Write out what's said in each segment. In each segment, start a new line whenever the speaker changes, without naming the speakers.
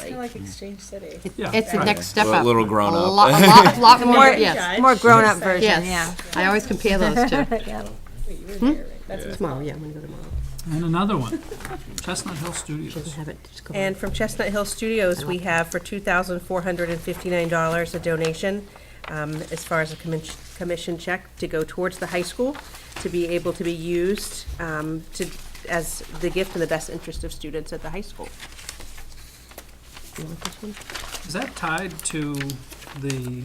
Kind of like Exchange City.
Yeah,
It's the
right.
next step
A
up.
little grown
A
up.
lot, a lot, lot more,
Yeah.
yes,
More grown-up version, yeah.
yes. I always compare those two.
Yeah.
Wait, you were there, right? That's
Tomorrow, yeah, I'm gonna go tomorrow.
And another one, Chestnut Hill Studios.
Doesn't have it, just go on.
And from Chestnut Hill Studios, we have for $2,459 a donation um, as far as a commis- commission check to go towards the high school to be able to be used um, to, as the gift in the best interest of students at the high school.
You want this one?
Is that tied to the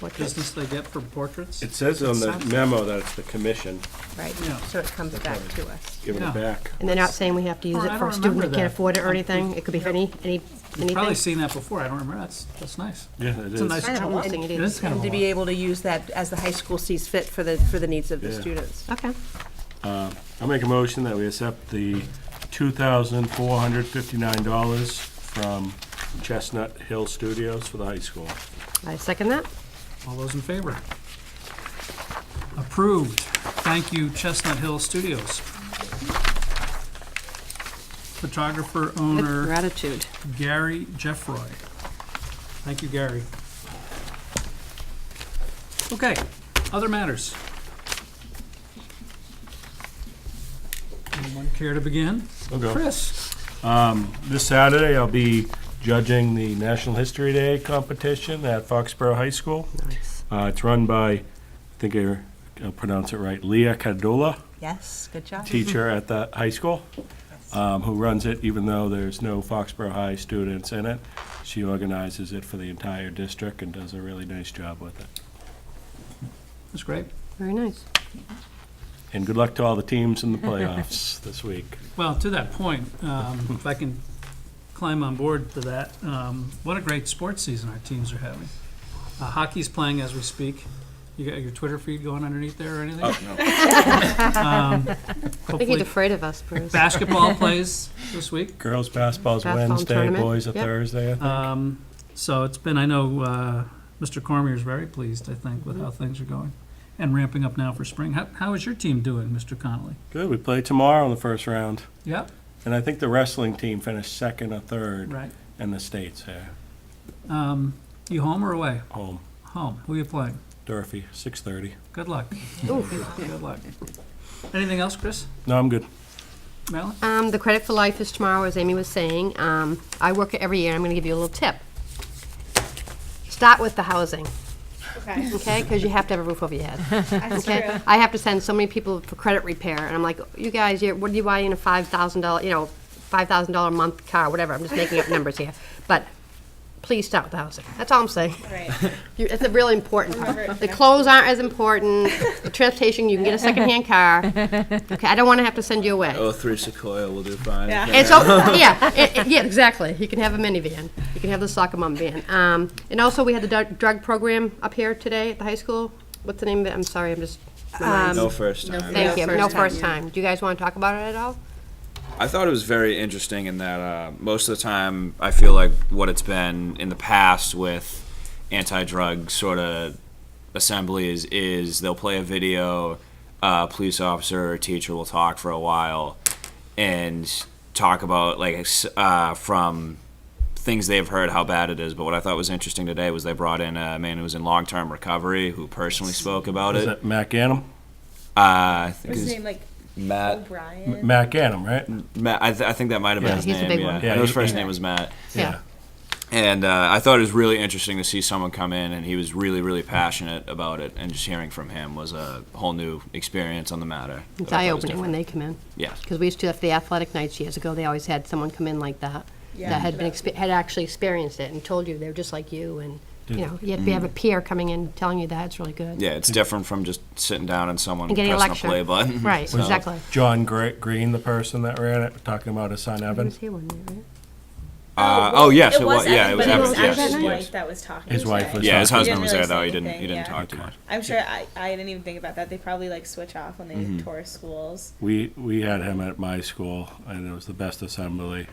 Portrait.
business they get for portraits?
It says on the
Sounds-
memo that it's the commission
Right.
Yeah.
So it comes back to us.
giving
Yeah.
it back.
And they're not saying we have to use
Oh,
it
I
for a
don't
student that
remember
can't
that.
afford it or
Um,
anything. It could be for any, any,
You've probably
anything.
seen that before, I don't remember, that's, that's nice.
Yeah, it
It's a nice
Kind of a
choice.
thing it
It
is.
is kind of a
And to
lot.
be able to use that as the high school sees fit for the, for the needs of the
Yeah.
students.
Okay.
I'll make a motion that we accept the two thousand four hundred fifty-nine dollars from Chestnut Hill Studios for the high school.
I second that.
All those in favor? Approved. Thank you, Chestnut Hill Studios. Photographer owner
Gratitude.
Gary Jeffroy. Thank you, Gary. Okay, other matters. Anyone care to begin?
I'll go.
Chris?
This Saturday, I'll be judging the National History Day competition at Foxborough High School.
Nice.
Uh, it's run by, I think I I'll pronounce it right, Leah Cadola.
Yes, good job.
teacher at the high school um, who runs it, even though there's no Foxborough High students in it. She organizes it for the entire district and does a really nice job with it.
That's great.
Very nice.
And good luck to all the teams in the playoffs this week.
Well, to that point, um, if I can climb on board to that, um, what a great sports season our teams are having. Uh, Hockey's playing as we speak. You got your Twitter feed going underneath there or anything? Um,
I think he's
Hopefully,
afraid of us, Bruce.
basketball plays this week.
Girls' basketball's
Basketball
Wednesday,
tournament,
boys are
yep.
Thursday.
Um, So it's been, I know uh, Mr. Cormier's very pleased, I think, with how things are going and ramping up now for spring. How How is your team doing, Mr. Connolly?
Good, we play tomorrow in the first round.
Yep,
And I think the wrestling team finished second or third
right.
in the states here,
Um, You home or away?
home.
Home. Who you playing?
Durfee, 6:30.
Good luck. Good luck. Anything else, Chris?
No, I'm good.
Marilyn?
Um, the credit for life is tomorrow, as Amy was saying. Um, I work it every year. I'm going to give you a little tip. Start with the housing,
Okay,
okay? Because you have to have a roof over your head.
that's true.
I have to send so many people for credit repair, and I'm like, you guys, you're, what are you buying a five thousand dollar, you know, five thousand dollar a month car, whatever. I'm just making up numbers here, but please start with the housing. That's all I'm saying.
Right.
You- It's really important.
Remember it
The clothes aren't as important. The transportation, you can get a secondhand car. Okay, I don't want to have to send you away.
Oh, through Sequoia will do fine.
Yeah.
It's o- yeah, it, it- yeah, exactly. You can have a minivan. You can have the soccer mom van. Um, and also, we had the dr- drug program up here today at the high school. What's the name of it? I'm sorry, I'm just. my
Um,
mind's-
No first time.
Thank you. No first time. Do you guys want to talk about it at all?
I thought it was very interesting in that uh, most of the time, I feel like what it's been in the past with anti-drug sort of assemblies is they'll play a video, a police officer or teacher will talk for a while, and talk about like s- uh, from things they've heard how bad it is. But what I thought was interesting today was they brought in a man who was in long-term recovery who personally spoke about
Is
it. Uh,
that Mac Annam?
I think
What's his
his-
name, like
Matt.
O'Brien?
Mac Annam, right?
Matt, I, th- I think that might have been
Yeah.
his
He's the
name.
big
yeah.
one.
I
Yeah,
know his
he-
first
yeah.
name was Matt.
Yeah.
And uh, I thought it was really interesting to see someone come in, and he was really, really passionate about it. And just hearing from him was a whole new experience on the matter. that
It's
I
eye
thought was
opening when
different.
they come in.
Yeah.
Because we used to, have the athletic nights years ago, they always had someone come in like that.
Yeah.
That had
Uh,
been, expe- had actually experienced it and told you they were just like you and, you
Did-
know, you have- you have a peer coming in telling you that, it's really good.
Yeah, it's different from just sitting down and someone
And getting a
pressing
lecture.
play button.
Right,
So-
exactly.
John Gre- Green, the person that ran it, talking about his son
He
Evan.
was here one night, right?
Uh, oh yes, it
It was
was. Yeah,
Evan,
it was
but
Evan.
Evan
Yes,
actually his
yes.
wife that was talking.
His wife
today.
was-
Yeah, his
He didn't
husband was
really
there though.
say
He didn't. He
anything,
didn't
yeah.
talk too much.
I'm sure I, I didn't even think about that. They probably like switch off when they
Mm-hmm.
tour schools.
We, we had him at my school, and it was the best assembly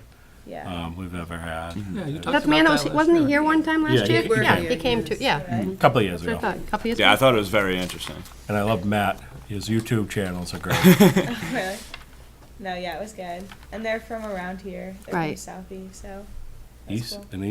Yeah.
Uh.
um, we've ever had.
Yeah, you talked
That man, that
about
was,
that
wasn't he
last year.
here one time
Yeah,
last
he-
year?
he
Yeah,
came.
he came to, yeah.
A couple of years
So I
ago.
thought, a couple years
Yeah, I
ago.
thought it was very interesting.
And I love Matt. His YouTube channels are great.
Really? No, yeah, it was good. And they're from around here. They're
Right.
from Southie, so
East,
cool.
an